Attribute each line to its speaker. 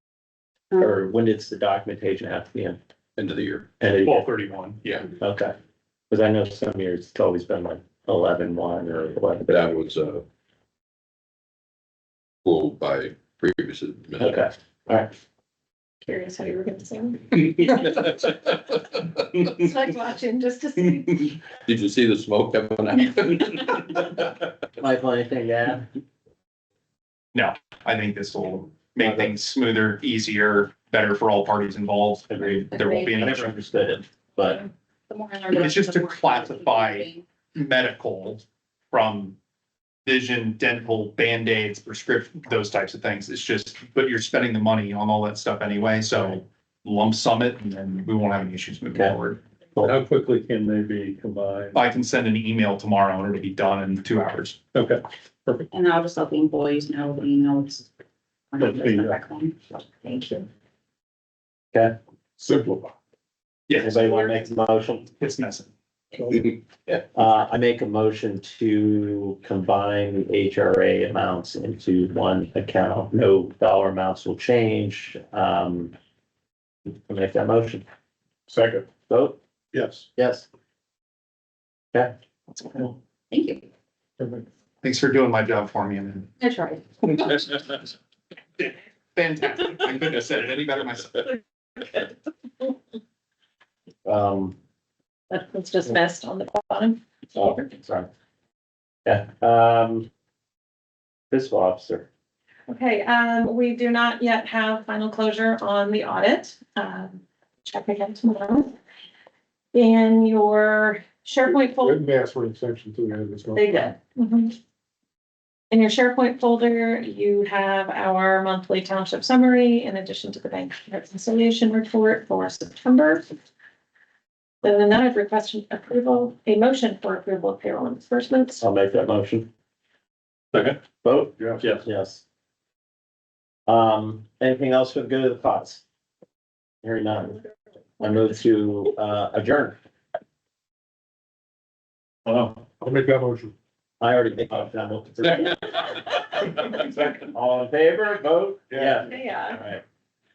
Speaker 1: or when does the documentation have to be in?
Speaker 2: end of the year.
Speaker 1: End of the year?
Speaker 2: Twelve thirty-one, yeah.
Speaker 1: Okay, cause I know some years it's always been like eleven one or eleven,
Speaker 3: But I was, uh, fooled by previous administration.
Speaker 1: okay, alright.
Speaker 4: Curious how you were gonna sound.
Speaker 3: Did
Speaker 4: It's like watching just to see.
Speaker 3: you see the smoke coming out?
Speaker 1: Mike, anything to add?
Speaker 2: I think this will make things smoother, easier, better for all parties involved.
Speaker 1: Agreed.
Speaker 2: There won't be
Speaker 1: I
Speaker 2: any
Speaker 1: never understood it, but
Speaker 4: The more I learn.
Speaker 2: It's just
Speaker 4: the
Speaker 2: to
Speaker 4: more-
Speaker 2: classify medical from vision, dental, Band-Aids, prescription, those types of things. It's just, but you're spending the money on all that stuff anyway, so lump sum it and then we won't have any issues moving
Speaker 1: Okay.
Speaker 2: forward.
Speaker 5: How quickly can they be combined?
Speaker 2: I can send an email tomorrow and it'll be done in two hours.
Speaker 5: Okay,
Speaker 6: And I'll just let the employees know, you know, it's.
Speaker 5: Let's see,
Speaker 2: uh,
Speaker 5: yeah.
Speaker 6: Thank you.
Speaker 5: simplify.
Speaker 2: Yes,
Speaker 1: anybody wanna make a motion?
Speaker 2: it's messy.
Speaker 1: Uh, I make a motion to combine the HRA amounts into one account. No dollar amounts will change. Um. I Make that motion.
Speaker 5: Second,
Speaker 1: Vote,
Speaker 5: yes.
Speaker 1: yes. Okay.
Speaker 6: Thank you.
Speaker 2: Thanks for doing my job for me and then
Speaker 6: That's right.
Speaker 2: Fantastic. I couldn't have said it any better myself.
Speaker 1: Um,
Speaker 4: That- It's just messed on the bottom.
Speaker 1: oh, sorry. Yeah, um. Fiscal officer,
Speaker 4: Okay, um, we do not yet have final closure on the audit. Um, check again tomorrow. In your SharePoint folder.
Speaker 5: Wouldn't ask for an exception to the end of this month.
Speaker 4: They did. Mhm. In your SharePoint folder, you have our monthly township summary in addition to the bank reconciliation report for September. Other than that, I've requested approval, a motion for approval of payroll and disbursements.
Speaker 1: I'll make that motion.
Speaker 5: Second.
Speaker 1: Vote,
Speaker 5: Yes.
Speaker 1: yes, yes. Um, anything else for the good of the cause? Hearing none. I move to uh, adjourn.
Speaker 5: Wow. Uh, I'll make that motion.
Speaker 1: I already made my final. All in favor, vote? Yeah.
Speaker 4: Yeah. uh,
Speaker 1: All right.